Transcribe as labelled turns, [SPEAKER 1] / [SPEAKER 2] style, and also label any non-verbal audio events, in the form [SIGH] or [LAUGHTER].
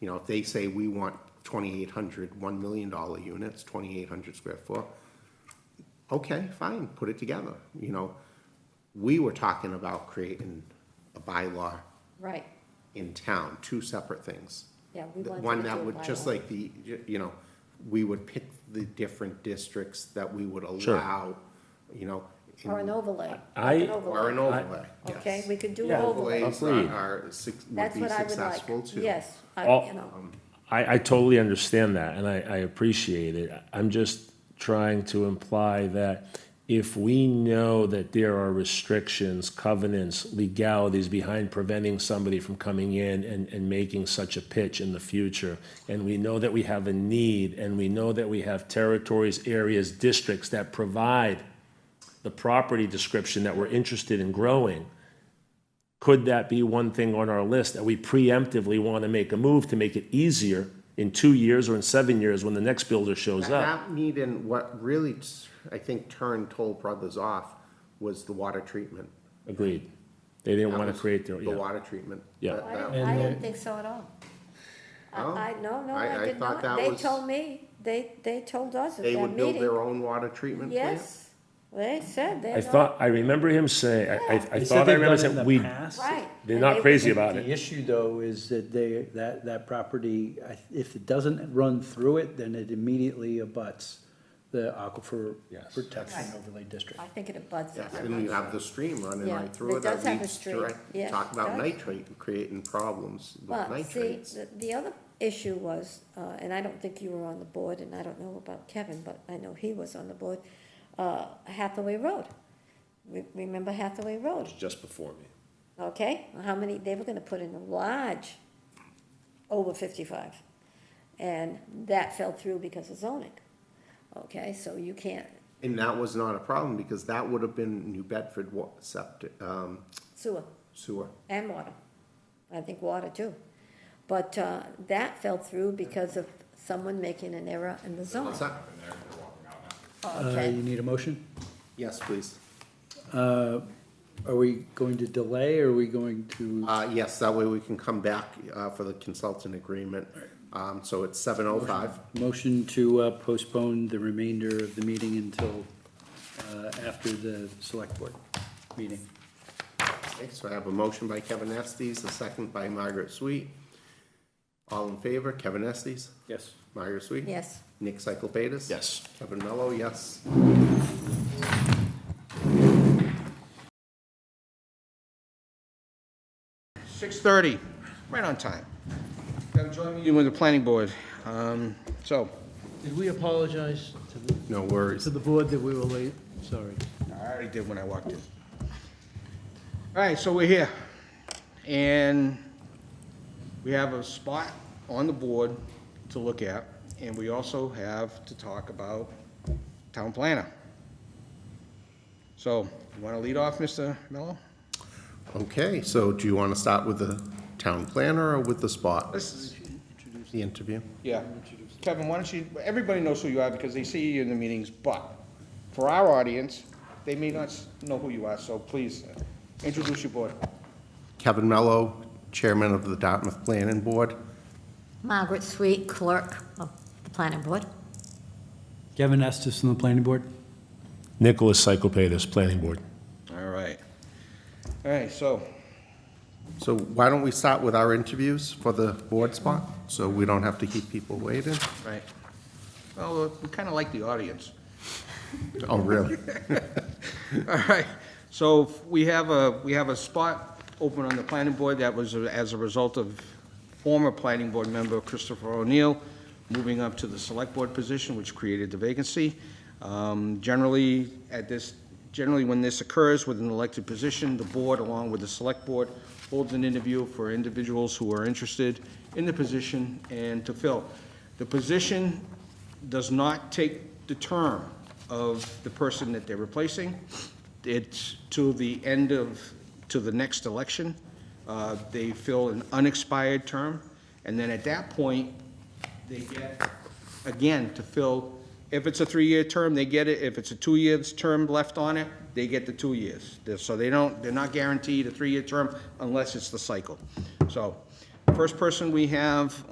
[SPEAKER 1] you know, if they say we want 2,800, $1 million units, 2,800 square foot, okay, fine, put it together, you know. We were talking about creating a bylaw
[SPEAKER 2] Right,
[SPEAKER 1] in town, two separate things.
[SPEAKER 2] yeah, we
[SPEAKER 1] The
[SPEAKER 2] wanted to do
[SPEAKER 1] One that would,
[SPEAKER 2] it
[SPEAKER 1] just
[SPEAKER 2] by
[SPEAKER 1] like the, you know, we would pick the different districts that we would
[SPEAKER 3] Sure.
[SPEAKER 1] allow, you know.
[SPEAKER 2] law. Or an overlay. like
[SPEAKER 3] I-
[SPEAKER 2] an
[SPEAKER 1] Or an
[SPEAKER 2] overlay.
[SPEAKER 1] overlay, yes.
[SPEAKER 2] Okay, we could do
[SPEAKER 3] Yeah.
[SPEAKER 2] an overlay.
[SPEAKER 1] Overlays are,
[SPEAKER 3] Agreed.
[SPEAKER 1] are, suc- would
[SPEAKER 2] That's
[SPEAKER 1] be
[SPEAKER 2] what I would like.
[SPEAKER 1] successful too. Um,
[SPEAKER 2] Yes, I,
[SPEAKER 3] All-
[SPEAKER 2] you know,
[SPEAKER 3] I, I totally understand that, and I, I appreciate it. I'm just trying to imply that if we know that there are restrictions, covenants, legalities behind preventing somebody from coming in and, and making such a pitch in the future, and we know that we have a need, and we know that we have territories, areas, districts that provide the property description that we're interested in growing, could that be one thing on our list that we preemptively want to make a move to make it easier in two years or in seven years when the next builder shows up?
[SPEAKER 1] That meeting, what really, t- I think, turned Toll Brothers off was the water treatment.
[SPEAKER 3] Agreed. They didn't want to
[SPEAKER 1] was
[SPEAKER 3] create their,
[SPEAKER 1] The
[SPEAKER 3] yeah.
[SPEAKER 1] water treatment.
[SPEAKER 3] Yeah.
[SPEAKER 1] That-
[SPEAKER 2] I
[SPEAKER 1] that-
[SPEAKER 2] don't, I didn't think so at all.
[SPEAKER 1] Oh.
[SPEAKER 2] I, I, no, no,
[SPEAKER 1] I- I
[SPEAKER 2] I did
[SPEAKER 1] thought
[SPEAKER 2] not.
[SPEAKER 1] that
[SPEAKER 2] They
[SPEAKER 1] was-
[SPEAKER 2] told me, they, they told us at
[SPEAKER 1] They
[SPEAKER 2] that
[SPEAKER 1] would build
[SPEAKER 2] meeting.
[SPEAKER 1] their own water treatment plant?
[SPEAKER 2] Yes, they said they're
[SPEAKER 3] I
[SPEAKER 2] not.
[SPEAKER 3] thought, I remember him saying, I- I, I
[SPEAKER 4] They said
[SPEAKER 3] thought I
[SPEAKER 4] they've
[SPEAKER 3] remember
[SPEAKER 4] done it in
[SPEAKER 3] saying,
[SPEAKER 4] the
[SPEAKER 3] we,
[SPEAKER 4] past.
[SPEAKER 2] Right.
[SPEAKER 3] they're
[SPEAKER 2] and
[SPEAKER 3] not
[SPEAKER 2] they
[SPEAKER 3] crazy
[SPEAKER 2] would-
[SPEAKER 3] about
[SPEAKER 4] The
[SPEAKER 3] it.
[SPEAKER 4] issue, though, is that they, that, that property, I- if it doesn't run through it, then it immediately abuts the aquifer
[SPEAKER 3] Yes.
[SPEAKER 4] protection
[SPEAKER 2] Right.
[SPEAKER 4] overlay district.
[SPEAKER 2] I think it abuts it.
[SPEAKER 1] Yes, and you have the stream running
[SPEAKER 2] Yeah,
[SPEAKER 1] right through
[SPEAKER 2] it
[SPEAKER 1] it, that
[SPEAKER 2] does have a
[SPEAKER 1] leads
[SPEAKER 2] stream.
[SPEAKER 1] direct,
[SPEAKER 2] Yes,
[SPEAKER 1] talk
[SPEAKER 2] it
[SPEAKER 1] about
[SPEAKER 2] does.
[SPEAKER 1] nitrate, creating problems with
[SPEAKER 2] Well, see,
[SPEAKER 1] nitrates.
[SPEAKER 2] the, the other issue was, uh, and I don't think you were on the board, and I don't know about Kevin, but I know he was on the board, uh, Hathaway Road. Re- Remember Hathaway Road,
[SPEAKER 3] Just before me.
[SPEAKER 2] okay? How many, they were gonna put in a large, over fifty-five. And that fell through because of zoning. Okay, so you can't,
[SPEAKER 1] And that was not a problem, because that would have been New Bedford wa- septic, um,
[SPEAKER 2] sewer.
[SPEAKER 1] sewer.
[SPEAKER 2] and water. I think water too. But uh, that fell through because of someone making an error in the zone.
[SPEAKER 1] What's that?
[SPEAKER 4] Uh, you
[SPEAKER 2] Okay,
[SPEAKER 4] need a motion?
[SPEAKER 1] Yes, please.
[SPEAKER 4] Are we going to delay, or are we going to,
[SPEAKER 1] Uh, yes, that way we can come back, uh, for the consultant agreement. Um, so it's seven oh five.
[SPEAKER 4] motion to uh, postpone the remainder of the meeting until, uh, after the select board meeting?
[SPEAKER 1] Okay, so I have a motion by Kevin Estes, a second by Margaret Sweet. All in favor, Kevin Estes,
[SPEAKER 4] Yes.
[SPEAKER 1] Margaret Sweet?
[SPEAKER 2] yes.
[SPEAKER 1] Nick Cyclepatis?
[SPEAKER 3] Yes.
[SPEAKER 1] Kevin Mello, yes.
[SPEAKER 5] Six thirty, right on time. Got a joint meeting with the planning board. Um, So,
[SPEAKER 6] Did we apologize to the,
[SPEAKER 1] No worries.
[SPEAKER 6] to the board that we were late? Sorry.
[SPEAKER 5] I already did when I walked in. All right, so we're here. And we have a spot on the board to look at, and we also have to talk about town planner. So, you want to lead off, Mr. Mello?
[SPEAKER 1] Okay, so do you want to start with the town planner or with the spot,
[SPEAKER 5] This is,
[SPEAKER 1] the interview?
[SPEAKER 5] Yeah. Kevin, why don't you, everybody knows who you are because they see you in the meetings, but for our audience, they may not s- know who you are, so please uh, introduce your board.
[SPEAKER 1] Kevin Mello, Chairman of the Dartmouth Planning Board.
[SPEAKER 2] Margaret Sweet, clerk of the planning board.
[SPEAKER 6] Kevin Estes from the planning board?
[SPEAKER 3] Nicholas Cyclepatis, Planning Board.
[SPEAKER 5] All right. All right, so,
[SPEAKER 1] So why don't we start with our interviews for the board spot, so we don't have to keep people waiting?
[SPEAKER 5] right. Well, we kind of like the audience.
[SPEAKER 1] Oh, really?
[SPEAKER 5] [LAUGHS] All right, so we have a, we have a spot open on the planning board that was as a result of former planning board member Christopher O'Neill moving up to the select board position, which created the vacancy. Um, Generally, at this, generally when this occurs with an elected position, the board, along with the select board, holds an interview for individuals who are interested in the position and to fill. The position does not take the term of the person that they're replacing. It's to the end of, to the next election. Uh, They fill an unexpired term, and then at that point, they get, again, to fill, if it's a three-year term, they get it. If it's a two-year term left on it, they get the two years. They're- So they don't, they're not guaranteed a three-year term unless it's the cycle. So, first person we have